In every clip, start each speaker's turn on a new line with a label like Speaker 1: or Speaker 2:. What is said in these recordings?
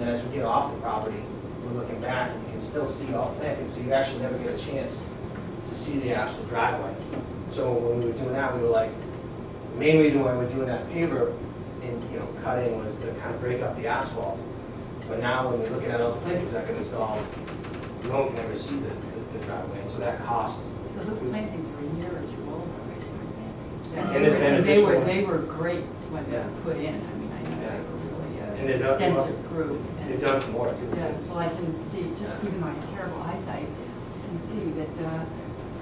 Speaker 1: as we get off the property, we're looking back and you can still see all planting, so you actually never get a chance to see the actual driveway. So when we were doing that, we were like, the main reason why we're doing that paver and, you know, cutting was to kind of break up the asphalt. But now when we're looking at all the plantings that get installed, you won't never see the, the- the driveway, and so that cost.
Speaker 2: So those plantings are a year or two old already, aren't they?
Speaker 1: And there's been
Speaker 2: They were,
Speaker 1: additional-
Speaker 2: they were great when they
Speaker 1: Yeah.
Speaker 2: were put in, I mean, I know
Speaker 1: Yeah.
Speaker 2: they
Speaker 1: And
Speaker 2: were
Speaker 1: there's
Speaker 2: really
Speaker 1: other-
Speaker 2: an extensive group. and-
Speaker 1: They've done some more too
Speaker 2: Yeah,
Speaker 1: since.
Speaker 2: well, I can see, just
Speaker 1: Yeah.
Speaker 2: even my terrible eyesight, can see that uh,
Speaker 1: Yeah.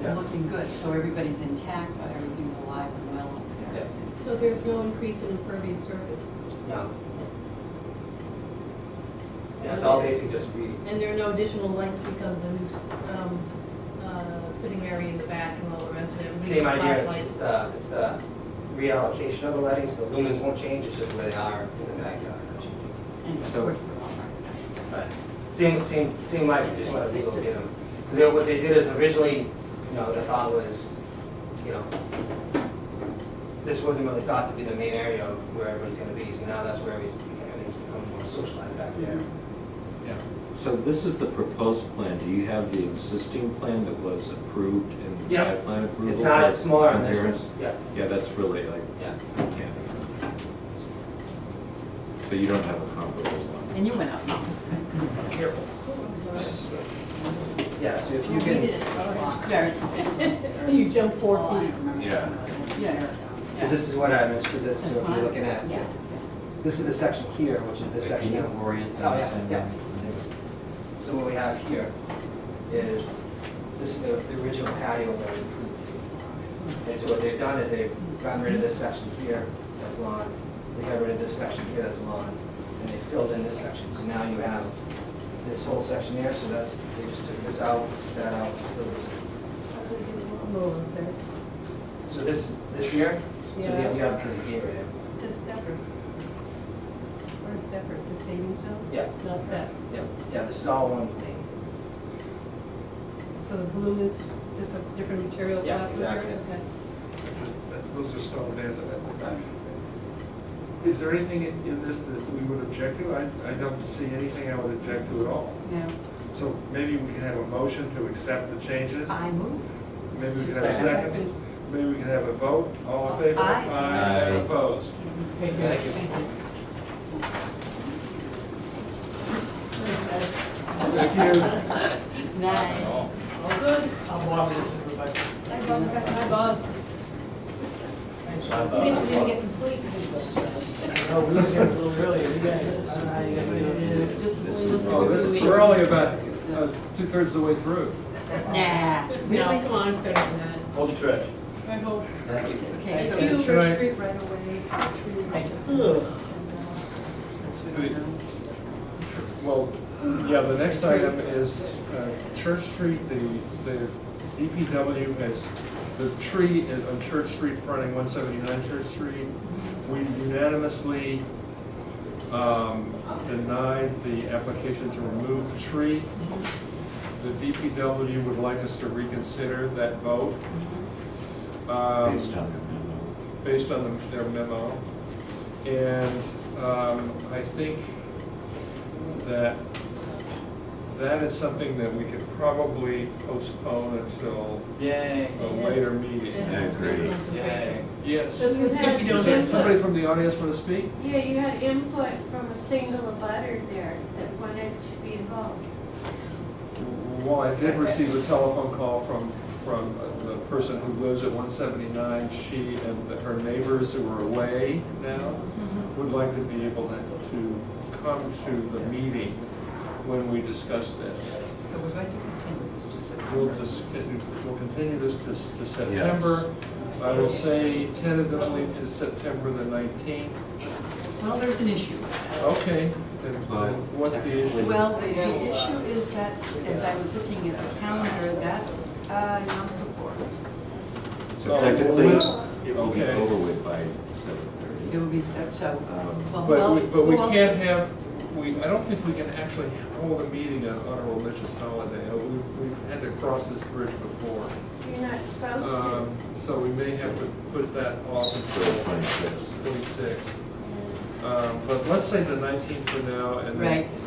Speaker 2: they're looking good, so everybody's intact, but everything's alive and well up there.
Speaker 3: So there's no increase in impervious surface,
Speaker 1: No. Yeah, it's all basically just re,
Speaker 3: and there are no additional lights because of the new, um, uh, sitting area in the back and all the rest of it. We need
Speaker 1: same idea, it's,
Speaker 3: flashlights.
Speaker 1: it's the, it's the reallocation of the lighting, so the lumens won't change, it's just where they are in the backyard.
Speaker 2: And of
Speaker 1: So-
Speaker 2: course, they're all marked
Speaker 1: Right. Same, same, same lighting, just wanna relocate them. Because what they did is originally, you know, the thought was, you know, this wasn't really thought to be the main area of where everybody's gonna be, so now that's where everybody's, everything's become more socialized back there.
Speaker 4: So this is the proposed plan. Do you have the existing plan that was approved in the
Speaker 1: Yeah.
Speaker 4: site plan approval?
Speaker 1: It's not,
Speaker 4: for
Speaker 1: it's smaller on this
Speaker 4: appearance?
Speaker 1: one, yeah,
Speaker 4: Yeah, that's really like,
Speaker 1: yeah.
Speaker 4: can't. But you don't have a comparable
Speaker 2: out.
Speaker 4: one.
Speaker 2: And you went out.
Speaker 1: Careful.
Speaker 3: Oh, I'm sorry.
Speaker 1: Yeah, so if you can.
Speaker 2: Yeah, it's- it's-
Speaker 3: You jump four
Speaker 2: Oh, I
Speaker 3: feet.
Speaker 2: remember.
Speaker 4: Yeah.
Speaker 2: Yeah.
Speaker 1: So this is what I mentioned, that, so if
Speaker 2: That's
Speaker 1: you're looking
Speaker 2: fine.
Speaker 1: at,
Speaker 2: Yeah.
Speaker 1: this is the section here, which is this
Speaker 4: But
Speaker 1: section.
Speaker 4: Can
Speaker 1: down.
Speaker 4: you orient
Speaker 1: Oh,
Speaker 4: that?
Speaker 1: yeah, yeah. So what we have here is, this is the, the original patio that was approved. And so what they've done is they've gotten rid of this section here, that's lawn, they got rid of this section here, that's lawn, and they filled in this section, so now you have this whole section here, so that's, they just took this out, that out, filled this.
Speaker 3: I'm over there.
Speaker 1: So this, this here, so
Speaker 3: Yeah.
Speaker 1: the, you have this gate right here.
Speaker 3: It says steppers. Where's stepper, just paving stones?
Speaker 1: Yeah.
Speaker 3: Not steps.
Speaker 1: Yeah, yeah, this is all one thing.
Speaker 3: So the blue is just a different material.
Speaker 1: Yeah,
Speaker 3: class material?
Speaker 1: exactly.
Speaker 3: Okay.
Speaker 5: That's a- that's- Those are stone bands at that
Speaker 1: Right.
Speaker 5: point. Is there anything in in this that we would object to? I I don't see anything I would object to at all.
Speaker 2: Now,
Speaker 5: So maybe we can have a motion to accept the changes?
Speaker 2: I move.
Speaker 5: Maybe we can have a second? Maybe we can have a vote? All in favor?
Speaker 2: Aye.
Speaker 4: Aye.
Speaker 5: And opposed?
Speaker 1: Thank you.
Speaker 5: Thank you.
Speaker 2: Nice.
Speaker 3: All good? Hi, Bob. Hi, Bob.
Speaker 6: We need to get some sleep.
Speaker 7: No, we were here a little earlier, you guys, I don't know how you guys did it.
Speaker 2: This is, this is.
Speaker 5: Oh, this, we're only about uh, two-thirds of the way through.
Speaker 2: Nah.
Speaker 3: No, come on, I'm better than that.
Speaker 6: Hold the trash.
Speaker 3: I hope.
Speaker 1: Thank you.
Speaker 2: Okay, so.
Speaker 3: Thank you for
Speaker 7: Troy.
Speaker 3: street right away.
Speaker 5: Well, yeah, the next item is uh, Church Street, the, the DPW has, the tree is on Church Street fronting 179 Church Street. We unanimously um, denied the application to remove the tree. The DPW would like us to reconsider that vote. Um,
Speaker 4: Based on your
Speaker 5: based on the- their memo. And um, I think that that is something that we could probably postpone until
Speaker 7: Yay.
Speaker 5: a later meeting.
Speaker 4: I agree.
Speaker 5: Yes.
Speaker 3: That's what happened.
Speaker 5: Is there somebody from the audience want to speak?
Speaker 8: Yeah, you had input from a single abutter there that wanted to be involved.
Speaker 5: Well, I did receive a telephone call from, from the person who lives at 179. She and the- her neighbors who are away now would like to be able to to come to the meeting when we discuss this.
Speaker 2: So we're going to continue this to
Speaker 5: We'll
Speaker 2: September.
Speaker 5: just, we'll continue this to to September. I will say tentatively to September the 19th.
Speaker 2: Well, there's an issue.
Speaker 5: Okay, then
Speaker 4: Well-
Speaker 5: then what's the issue?
Speaker 2: Well, the, the issue is that, as I was looking at the calendar, that's, uh, Yom Kippur.
Speaker 4: memo.
Speaker 5: Oh,
Speaker 4: So technically,
Speaker 5: well,
Speaker 4: it will be
Speaker 5: okay.
Speaker 4: over with by
Speaker 2: It
Speaker 4: 7:30.
Speaker 2: will be, so- so,
Speaker 4: Um,
Speaker 2: well,
Speaker 5: But we,
Speaker 2: well,
Speaker 5: but we
Speaker 2: well,
Speaker 5: can't have, we, I don't think we can actually hold a meeting on on a religious holiday. Uh, We, we've had to cross this bridge before.
Speaker 8: You're not supposed to.
Speaker 5: Um, so we may have to put that off
Speaker 4: So
Speaker 5: until
Speaker 4: 26.
Speaker 5: twenty-sixth. Um, but let's say the nineteenth for now and then.
Speaker 2: Right.